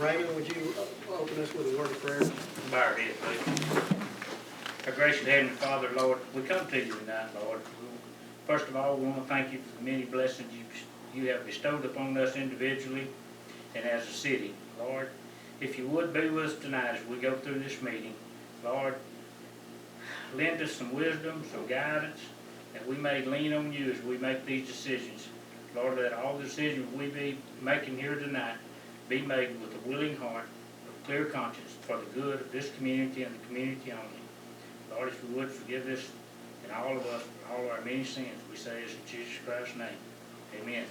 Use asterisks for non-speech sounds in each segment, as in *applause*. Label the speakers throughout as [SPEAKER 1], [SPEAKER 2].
[SPEAKER 1] Raymond, would you uh, open us with a word of prayer?
[SPEAKER 2] Bow our heads, please. Our gracious Heavenly Father, Lord, we come to you tonight, Lord. First of all, we want to thank you for the many blessings you, you have bestowed upon us individually and as a city. Lord, if you would be with us tonight as we go through this meeting, Lord, lend us some wisdom, some guidance, that we may lean on you as we make these decisions. Lord, let all decisions we be making here tonight be made with a willing heart of clear conscience for the good of this community and the community only. Lord, if you would forgive us and all of us for all our many sins, we say this in Jesus Christ's name. Amen.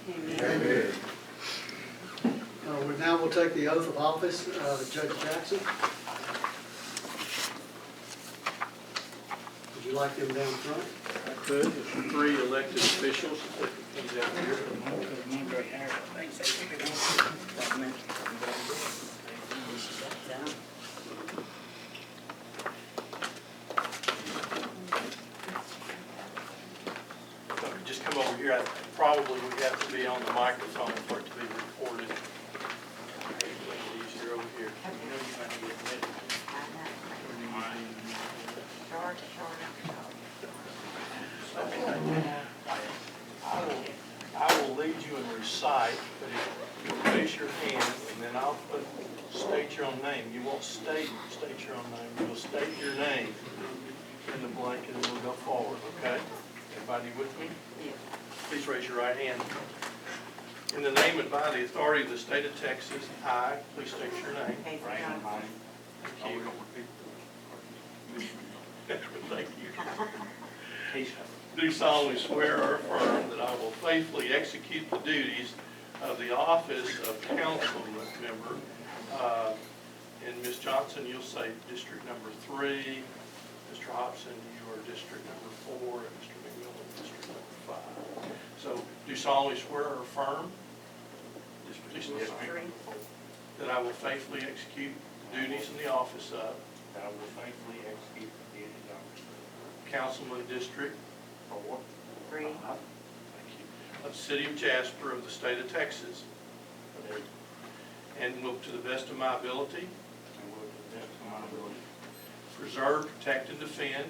[SPEAKER 1] Uh, we- Now we'll take the oath of office, uh, Judge Jackson. Would you like them down front?
[SPEAKER 3] I could, if three elected officials, if it comes out here. So if you Just come over here, I probably would have to be on the microphone for it to be recorded. Hopefully it's Easier over here. You know you're gonna get admitted. When you mind. I will, I will lead you and recite, but if you raise your hand, and then I'll put, state your own name. You won't state, state your own name, you'll state your name in the blank, and then we'll go forward, okay? Everybody with me? Please raise your right hand. In the name and by the authority of the state of Texas, I, please state your name.
[SPEAKER 4] Casey
[SPEAKER 3] Right.
[SPEAKER 4] Johnson.
[SPEAKER 3] Thank you. *laughs* Thank you. Do solemnly swear or affirm that I will faithfully execute the duties of the office of council member. uh, And Ms. Johnson, you'll say district number three. Mr. Hobson, you are district number four, and Mr. McMillan, district number five. So do solemnly swear or affirm this position that I will faithfully execute the duties in the office of
[SPEAKER 2] I will faithfully execute the duties of
[SPEAKER 3] councilman district
[SPEAKER 2] Four.
[SPEAKER 4] Three.
[SPEAKER 3] Thank you. Of the city of Jasper of the state of Texas. And will to the best of my ability
[SPEAKER 2] And will to the best of my ability.
[SPEAKER 3] preserve, protect, and defend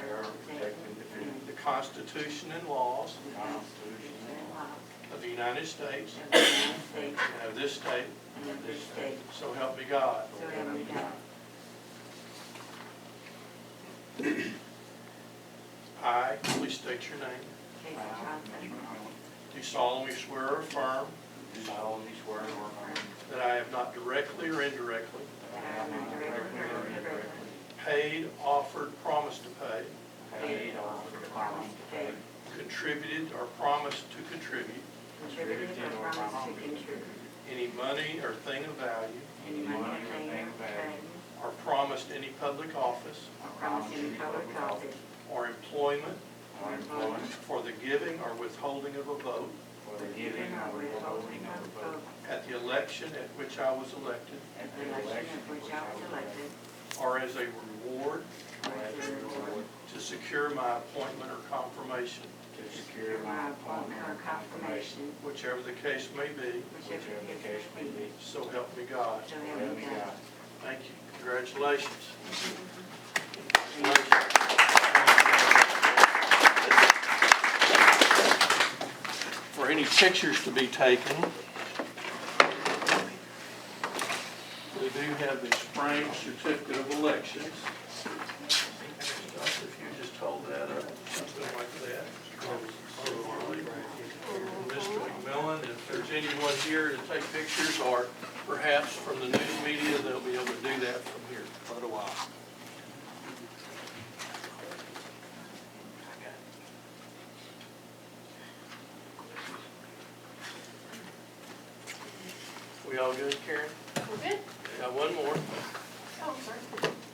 [SPEAKER 2] Bear, protect, and defend
[SPEAKER 3] the Constitution and laws
[SPEAKER 2] the Constitution and laws
[SPEAKER 3] of the United States
[SPEAKER 4] of the United States
[SPEAKER 3] and of this state.
[SPEAKER 4] and of this state,
[SPEAKER 3] So help me God.
[SPEAKER 4] so help me God.
[SPEAKER 3] I, please state your name,
[SPEAKER 4] Casey Johnson.
[SPEAKER 3] do solemnly swear or affirm
[SPEAKER 2] Do solemnly swear or affirm
[SPEAKER 3] that I have not directly or indirectly
[SPEAKER 4] that I am not directly or indirectly
[SPEAKER 3] paid, offered, promised to pay,
[SPEAKER 4] paid or promised to pay,
[SPEAKER 3] contributed, or promised to contribute
[SPEAKER 4] contributed or promised to contribute
[SPEAKER 3] any money or thing of value
[SPEAKER 4] any money or thing or thing,
[SPEAKER 3] or promised any public office
[SPEAKER 4] or promised any public office
[SPEAKER 3] or employment
[SPEAKER 4] or employment
[SPEAKER 3] for the giving or withholding of a vote
[SPEAKER 2] for the giving or withholding of a vote
[SPEAKER 3] at the election at which I was elected
[SPEAKER 4] at the election of which I was elected,
[SPEAKER 3] or as a reward
[SPEAKER 4] or as a reward
[SPEAKER 3] to secure my appointment or confirmation,
[SPEAKER 2] to secure
[SPEAKER 4] for
[SPEAKER 2] my
[SPEAKER 4] my appointment or confirmation,
[SPEAKER 3] whichever the case may be,
[SPEAKER 4] whichever the case may be,
[SPEAKER 3] so help me God.
[SPEAKER 4] so help me God.
[SPEAKER 3] Thank you. Congratulations. For any pictures to be taken, we do have the spring certificate of elections. If you just hold that up, something like that. Mr. McMillan, if there's anyone here to take pictures, or perhaps from the news media, they'll be able to do that from here for a while. We all good, Karen?
[SPEAKER 5] We're good?
[SPEAKER 3] Got one more.
[SPEAKER 5] Oh, I'm sorry.